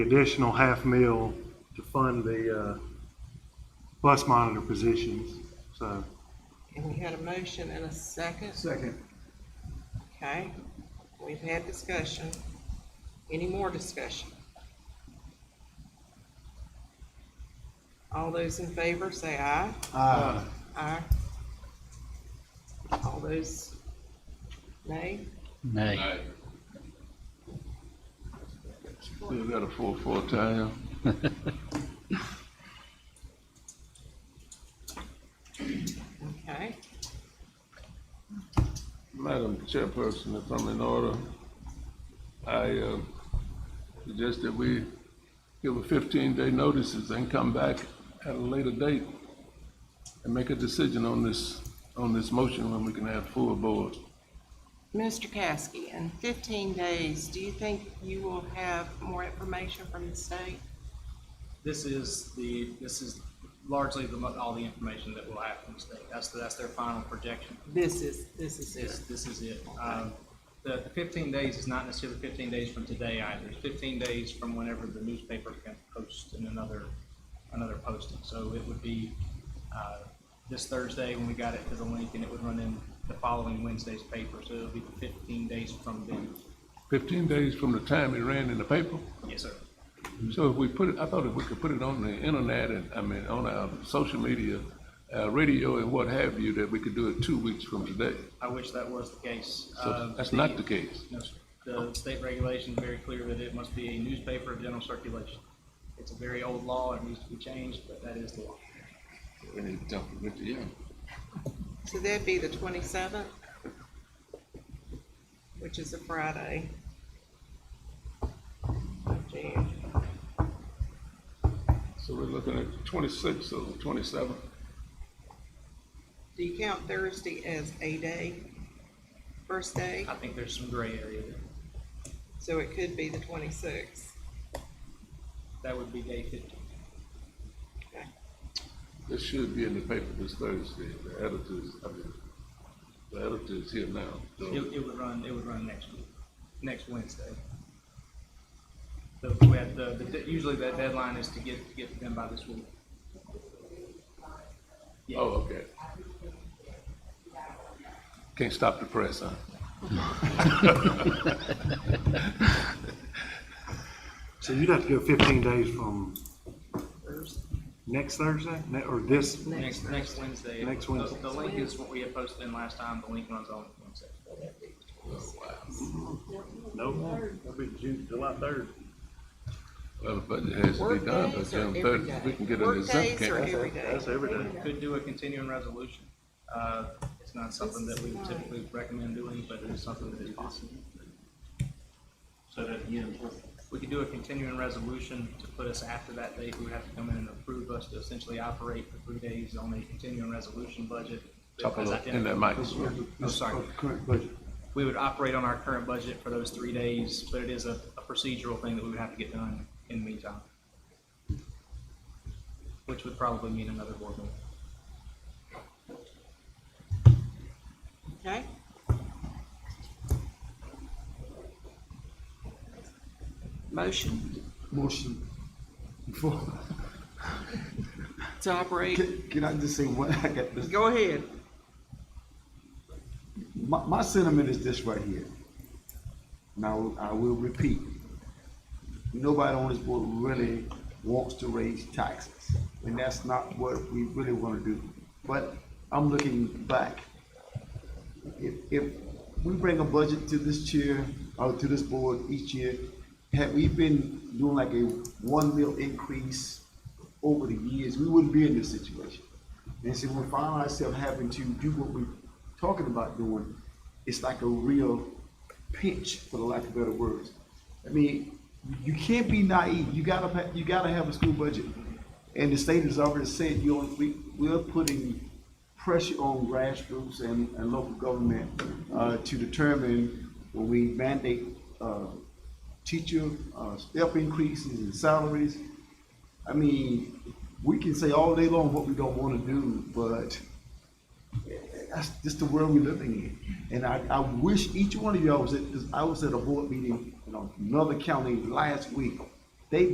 additional half mil to fund the, uh, bus monitor positions, so. And we had a motion and a second. Second. Okay, we've had discussion. Any more discussion? All those in favor say aye. Aye. Aye. All those nay? Nay. Still got a full, full tire. Okay, Madam Chairperson, if I'm in order, I uh, suggest that we give a fifteen-day notices and come back at a later date and make a decision on this, on this motion when we can have full board. Mr. Caskey, in fifteen days, do you think you will have more information from the state? This is the, this is largely the, mo- all the information that we'll have from the state. That's, the- that's their final projection. This is, this is This, it. this is it. Um, The the fifteen days is not necessarily fifteen days from today either. It's fifteen days from whenever the newspaper can post in another, another posting. So it would be, uh, this Thursday when we got it to the link and it would run in the following Wednesday's paper. So it'll be fifteen days from then. Fifteen days from the time it ran in the paper. Yes, sir. So if we put it, I thought if we could put it on the internet and, I mean, on our social media, uh, radio and what have you, that we could do it two weeks from today. I wish that was the case. So Um, that's not the case. No, sir. The state regulation is very clear that it must be a newspaper of general circulation. It's a very old law, it needs to be changed, but that is the law. So that'd be the twenty-seventh, which is a Friday. of Jan. So we're looking at twenty-six or twenty-seven. Do you count Thursday as a day? First day, I think there's some gray area there. so it could be the twenty-sixth. That would be day fifteen. This should be in the paper this Thursday. The editors, I mean, the editor's here now. so- It, it would run, it would run next week, next Wednesday. The, we had the, the, de- usually that deadline is to get, to get them by this week. Yeah. Oh, okay. Can't stop the press, huh? So you'd have to go fifteen days from Thursday. next Thursday, ne- or this, Next, next Wednesday. Next The- Wednesday. The link is what we had posted in last time, the link runs on Wednesday. no, that'd be June, July third. Well, the budget has to be done, but Workdays or then every Thursday, day? we can get an exempt, Workdays or can't we? every day? That's every day. Could do a continuing resolution. Uh, It's not something that we would typically recommend doing, but it is something that is possible. So that, again, we could do a continuing resolution to put us after that date. We would have to come in and approve us to essentially operate for three days on a continuing resolution budget. Talk a as little- in that identified. mic. Oh, sorry. Current budget. We would operate on our current budget for those three days, but it is a a procedural thing that we would have to get done in the meantime. Which would probably mean another board meeting. Okay? Motion Motion. Before, to operate, can, can I just say one, I got this, go ahead. my, my sentiment is this right here. Now, I will repeat. Nobody on this board really wants to raise taxes, and that's not what we really wanna do. But I'm looking back. If, if we bring a budget to this chair, or to this board each year, had we been doing like a one mil increase over the years, we wouldn't be in this situation. And so when we find ourselves having to do what we're talking about doing, it's like a real pinch, for the lack of better words. I mean, you can't be naive. You gotta, ha- you gotta have a school budget. And the state has already said, you know, we, we're putting pressure on grassroots and, and local government, uh, to determine when we mandate, uh, teacher, uh, step increases and salaries. I mean, we can say all day long what we don't wanna do, but that's just the world we're living in. And I, I wish each one of y'all was at, 'cause I was at a board meeting in another county last week,